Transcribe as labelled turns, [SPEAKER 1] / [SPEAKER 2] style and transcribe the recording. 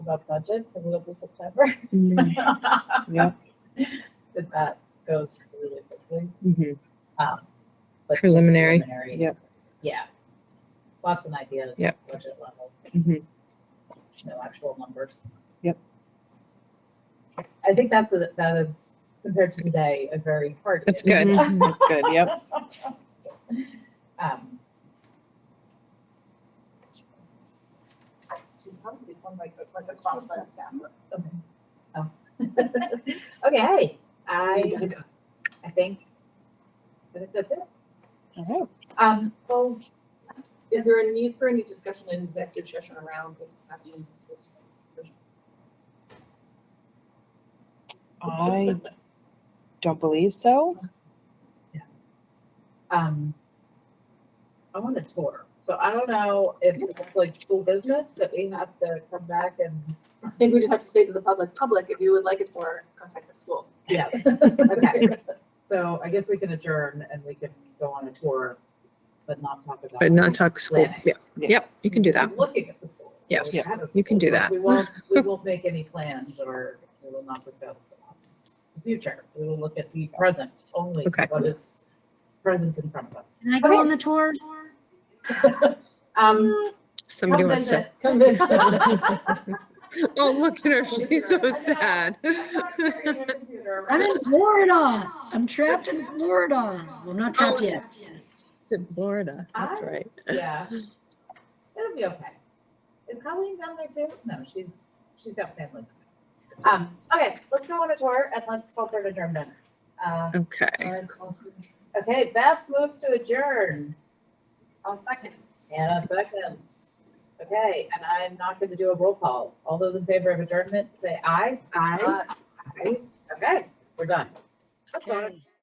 [SPEAKER 1] a budget for Global September,
[SPEAKER 2] Mm, Yep.
[SPEAKER 1] that that goes really quickly.
[SPEAKER 2] mhm.
[SPEAKER 1] Um, but just
[SPEAKER 3] Preliminary.
[SPEAKER 1] preliminary,
[SPEAKER 2] Yep.
[SPEAKER 1] Yeah. Lots of ideas.
[SPEAKER 3] Yep. Mm-hmm.
[SPEAKER 1] Budget level.
[SPEAKER 2] Mhm.
[SPEAKER 1] No actual numbers.
[SPEAKER 2] Yep.
[SPEAKER 1] I think that's, a- that is, compared to today, a very hard.
[SPEAKER 3] That's
[SPEAKER 1] hit.
[SPEAKER 3] Good.
[SPEAKER 2] Mhm, That's good, yep.
[SPEAKER 1] Um,
[SPEAKER 4] She's probably one like, like a crossbow stammer.
[SPEAKER 1] okay. Oh. Okay, I, I think, I think that's it.
[SPEAKER 2] All right.
[SPEAKER 1] Um,
[SPEAKER 4] Well, is there a need for any discussion in executive session around this? I mean, this-
[SPEAKER 2] I don't believe so.
[SPEAKER 1] um, I want a tour. So I don't know if it's like school business that we have to come back and,
[SPEAKER 4] I think we just have to say to the public, public, if you would like it for, contact the school.
[SPEAKER 1] yeah. Okay. So I guess we can adjourn and we can go on a tour, but not talk about.
[SPEAKER 3] But not talk school.
[SPEAKER 1] Planning.
[SPEAKER 3] Yeah.
[SPEAKER 2] Yeah.
[SPEAKER 3] Yep, you can do that.
[SPEAKER 1] I'm Looking at the school.
[SPEAKER 3] Yes.
[SPEAKER 1] We've had a
[SPEAKER 3] You can
[SPEAKER 1] school,
[SPEAKER 3] do
[SPEAKER 1] but
[SPEAKER 3] that.
[SPEAKER 1] We won't, we won't make any plans or we will not discuss the future. We will look at the present only,
[SPEAKER 3] Okay.
[SPEAKER 1] what is present in front of us.
[SPEAKER 5] Can I go
[SPEAKER 1] Okay.
[SPEAKER 5] on the tour?
[SPEAKER 1] Um,
[SPEAKER 3] Somebody
[SPEAKER 1] come
[SPEAKER 3] wants to,
[SPEAKER 1] visit, Come visit.
[SPEAKER 3] oh, look at her. She's so sad.
[SPEAKER 5] I'm in Florida. I'm trapped in Florida. Well, not trapped yet.
[SPEAKER 3] It's in Florida. That's
[SPEAKER 1] I-
[SPEAKER 3] right.
[SPEAKER 1] Yeah. It'll be okay. Is Colleen down there too? No, she's, she's got family. Um, okay, let's go on a tour and let's call for an adjournment. Uh,
[SPEAKER 3] Okay.
[SPEAKER 1] okay, Beth moves to adjourn.
[SPEAKER 4] I'll second.
[SPEAKER 1] Anna seconds. Okay, and I'm not gonna do a roll call. All those in favor of adjournment, say aye. Aye. Aye. Okay, we're done. That's fine.
[SPEAKER 5] Okay.